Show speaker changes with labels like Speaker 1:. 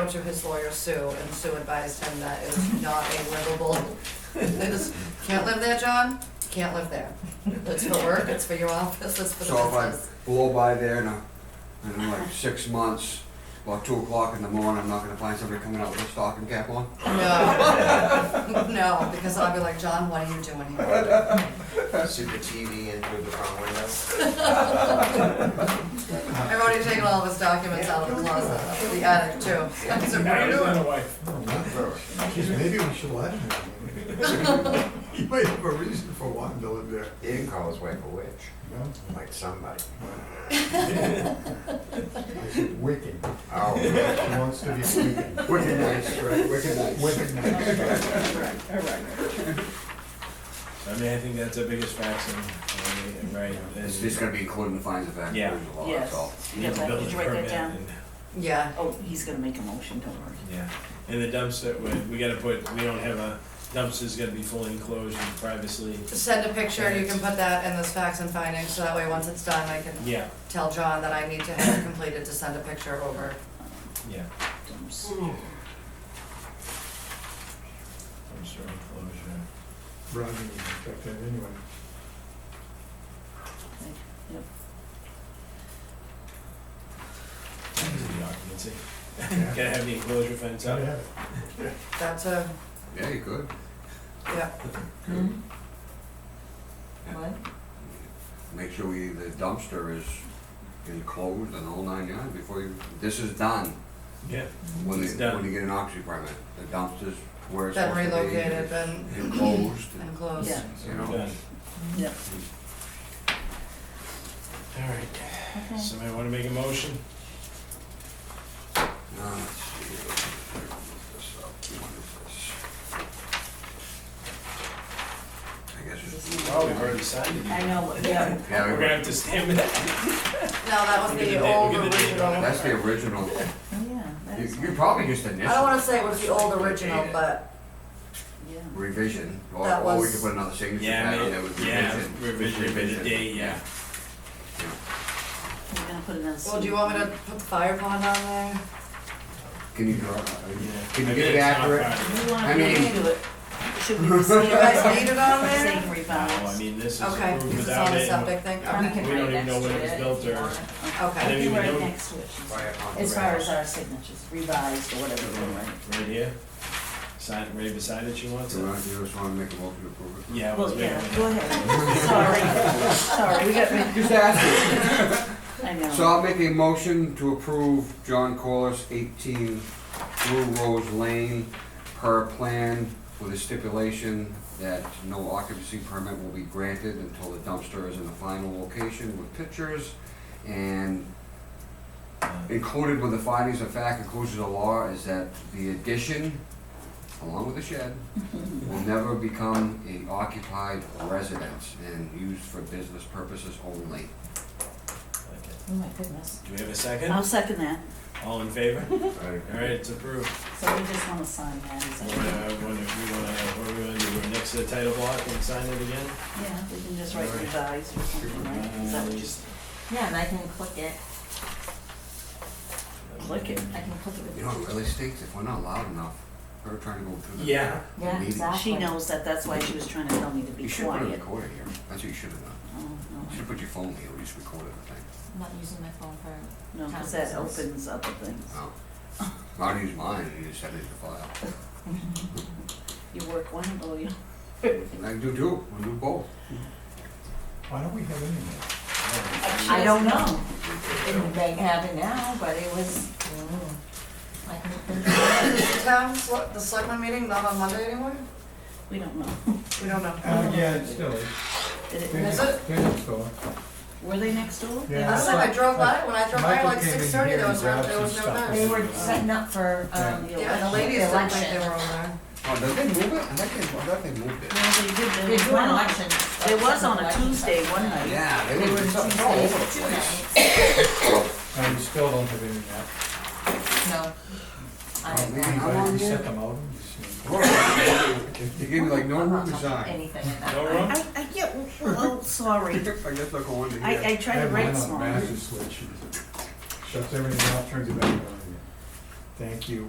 Speaker 1: wrote to his lawyer Sue, and Sue advised him that it was not a livable, it is, can't live there, John, can't live there. It's for work, it's for your office, it's for the
Speaker 2: So if I
Speaker 1: business.
Speaker 2: blow by there in, a, in like six months, about two o'clock in the morning, I'm not gonna find somebody coming out with a stocking cap on?
Speaker 1: No, no, because I'll be like, John, what are you doing here?
Speaker 3: Super TV in through the front window.
Speaker 1: I've already taken all of his documents out of the closet, the attic too. So what are you doing?
Speaker 4: Geez, maybe we should let him. He might have a reason for wanting to live there.
Speaker 3: He didn't call his wife a witch,
Speaker 4: No,
Speaker 3: like somebody.
Speaker 4: it's Wicked.
Speaker 3: Oh,
Speaker 4: He wants to be wicked.
Speaker 2: Wicked nice, right, wicked nice.
Speaker 4: Wicked nice.
Speaker 5: I mean, I think that's the biggest facts in, in, right?
Speaker 2: It's just gonna be including the fines of fact,
Speaker 5: Yeah.
Speaker 2: there's a lot, that's all.
Speaker 6: Yes.
Speaker 5: Need the
Speaker 6: Yeah,
Speaker 5: building
Speaker 6: Did you write that
Speaker 5: permit
Speaker 6: down?
Speaker 5: and-
Speaker 1: Yeah,
Speaker 6: Oh, he's gonna make a motion, don't worry.
Speaker 5: Yeah, and the dumpster, we, we gotta put, we don't have a, dumpster's gotta be fully enclosed and privacy.
Speaker 1: send a picture, you can put that in this facts and findings, so that way once it's done, I can
Speaker 5: Yeah,
Speaker 1: tell John that I need to have it completed to send a picture over.
Speaker 5: yeah,
Speaker 6: Don't s-
Speaker 5: dumpster enclosure.
Speaker 4: Rodney would check that anyway.
Speaker 6: Yep.
Speaker 5: The occupancy.
Speaker 4: Yeah.
Speaker 5: Gotta have the enclosure fence up.
Speaker 4: Gotta have it.
Speaker 1: That's a,
Speaker 2: Yeah, you could.
Speaker 1: yeah,
Speaker 6: What?
Speaker 2: Make sure we, the dumpster is enclosed and all nine yards before you, this is done.
Speaker 5: Yeah.
Speaker 2: When
Speaker 5: It's
Speaker 2: you,
Speaker 5: done.
Speaker 2: when you get an occupancy permit, the dumpster's where it's
Speaker 1: been
Speaker 2: supposed to be.
Speaker 1: relocated, been
Speaker 2: Enclosed, and,
Speaker 1: enclosed.
Speaker 6: Yeah.
Speaker 2: you
Speaker 5: We're
Speaker 2: know,
Speaker 5: done.
Speaker 6: Yep.
Speaker 5: All right, somebody wanna make a motion?
Speaker 2: uh, let's see, let's look this up. What is this? I guess it's.
Speaker 5: Oh, we've already signed it.
Speaker 6: I know, yeah.
Speaker 2: Yeah, we
Speaker 5: We're gonna have to stamp it.
Speaker 1: No, that was
Speaker 5: We'll get
Speaker 1: the
Speaker 5: the date- we'll
Speaker 1: old
Speaker 5: get the date
Speaker 1: original.
Speaker 5: on
Speaker 1: I
Speaker 2: That's the original.
Speaker 6: Yeah, that
Speaker 2: You,
Speaker 6: is,
Speaker 2: you probably just initial.
Speaker 1: don't wanna say it was the old original, but
Speaker 6: yeah.
Speaker 2: Revision, or,
Speaker 1: That
Speaker 2: or we
Speaker 1: was-
Speaker 2: could put another signature
Speaker 5: Yeah,
Speaker 2: pad on there
Speaker 5: ma-
Speaker 2: with
Speaker 5: yeah,
Speaker 2: revision.
Speaker 5: revision, by the day, yeah.
Speaker 6: We're gonna put another.
Speaker 1: Well, do you want me to put the fire pond on there?
Speaker 2: Can you draw,
Speaker 5: Yeah.
Speaker 2: can
Speaker 5: I
Speaker 2: you get
Speaker 5: bet
Speaker 2: it
Speaker 5: it's not
Speaker 2: accurate?
Speaker 5: Friday.
Speaker 6: You
Speaker 2: I
Speaker 6: wanna look
Speaker 2: mean-
Speaker 6: into it? Should we receive
Speaker 1: You guys need it on there?
Speaker 6: Same
Speaker 5: No, I
Speaker 6: rebalance?
Speaker 5: mean, this is
Speaker 1: Okay,
Speaker 5: approved
Speaker 1: this is on
Speaker 5: without
Speaker 1: the
Speaker 5: it,
Speaker 1: septic
Speaker 5: and
Speaker 1: thing,
Speaker 6: Um,
Speaker 1: okay,
Speaker 5: we don't even know when it was built or,
Speaker 6: I
Speaker 1: okay.
Speaker 5: then
Speaker 6: think
Speaker 5: we
Speaker 6: right
Speaker 5: know-
Speaker 6: next to it, she's-
Speaker 3: quiet on the
Speaker 6: as far as
Speaker 3: rails.
Speaker 6: our signatures, revised or whatever, we're right?
Speaker 5: right here. Sign it right beside it, you want
Speaker 2: Do you
Speaker 5: to?
Speaker 2: want, you just wanna make a motion to approve it?
Speaker 5: Yeah, I was
Speaker 6: Well, yeah,
Speaker 5: making
Speaker 6: go
Speaker 5: it.
Speaker 6: ahead. Sorry, sorry, we got, rid-
Speaker 2: Just ask
Speaker 6: I
Speaker 2: you.
Speaker 6: know.
Speaker 2: So I'll make a motion to approve John Corliss eighteen Blue Rose Lane per plan with a stipulation that no occupancy permit will be granted until the dumpster is in the final location with pictures and Included with the findings of fact, inclusion of law, is that the addition, along with the shed, will never become a occupied residence and used for business purposes only.
Speaker 5: Okay.
Speaker 6: Oh my goodness.
Speaker 5: Do we have a second?
Speaker 6: I'll second that.
Speaker 5: All in favor?
Speaker 2: Right.
Speaker 5: All right, it's approved.
Speaker 6: So we just wanna sign that, is
Speaker 5: We're
Speaker 6: that?
Speaker 5: gonna, we wanna, what are we gonna do? We're next to the title block and sign it again?
Speaker 6: Yeah, we can just write revised or something, right? Is that what you s-
Speaker 7: Yeah, and I can click it.
Speaker 6: Click it.
Speaker 7: I can click it with.
Speaker 2: You know, it really stinks if we're not loud enough, we're trying to go through the.
Speaker 5: Yeah.
Speaker 2: the
Speaker 7: Yeah,
Speaker 2: meeting.
Speaker 7: exactly.
Speaker 6: She knows that, that's why she was trying to tell me to be
Speaker 2: You should put a
Speaker 6: quiet.
Speaker 2: recorder here, that's what you should have done,
Speaker 6: Oh,
Speaker 2: you should put your phone here, we just recorded the thing.
Speaker 7: I'm not using my phone for.
Speaker 6: no, no, cause that opens up the things.
Speaker 2: Oh. I don't use mine, you just send it to file.
Speaker 6: You work one, oh, you,
Speaker 2: I do too, we do both.
Speaker 4: Why don't we have any more?
Speaker 7: I don't know. It may have it now, but it was, mm, I can click it.
Speaker 1: Is the town, sel- the selectmen meeting not on Monday anymore?
Speaker 6: we don't know.
Speaker 1: We don't know.
Speaker 4: Uh, yeah, it's still, is.
Speaker 6: Did it-
Speaker 1: Is it?
Speaker 4: Yeah, it's still.
Speaker 6: Were they next door?
Speaker 1: I
Speaker 4: Yeah.
Speaker 1: don't know, I drove by, when I drove by
Speaker 4: Michael
Speaker 1: like
Speaker 4: came in
Speaker 1: six thirty,
Speaker 4: here
Speaker 1: there
Speaker 4: and
Speaker 1: was, no-
Speaker 4: grabbed
Speaker 1: there
Speaker 4: some
Speaker 1: was no
Speaker 4: stuff.
Speaker 1: time.
Speaker 7: They were setting up for, um, the
Speaker 1: Yeah, and the ladies
Speaker 7: election.
Speaker 1: didn't think they were on there.
Speaker 2: Oh, did they move it? I thought they, I thought they moved it.
Speaker 6: No, they did,
Speaker 7: They
Speaker 6: there was
Speaker 7: do an
Speaker 6: one,
Speaker 7: election.
Speaker 6: there was on a Tuesday one night.
Speaker 2: Yeah, they
Speaker 7: They were
Speaker 2: were, it's all over the
Speaker 7: Tuesdays, two
Speaker 2: place.
Speaker 7: nights.
Speaker 4: And uh, we still don't have internet.
Speaker 7: No. I
Speaker 2: Oh, man,
Speaker 7: don't
Speaker 2: I'm on
Speaker 4: But we
Speaker 2: here.
Speaker 4: set them out and just.
Speaker 2: You gave me like no
Speaker 7: I'm
Speaker 2: room
Speaker 7: not
Speaker 2: to
Speaker 7: touching
Speaker 2: sign.
Speaker 7: anything in that.
Speaker 5: No
Speaker 7: room?
Speaker 5: room?
Speaker 6: I, I, yeah, well, sorry,
Speaker 2: I guess I'll go under here.
Speaker 6: I, I tried to
Speaker 4: have
Speaker 6: write
Speaker 4: mine on
Speaker 6: small.
Speaker 4: the master switch. Shuts everything off, turns it back on again. Thank you.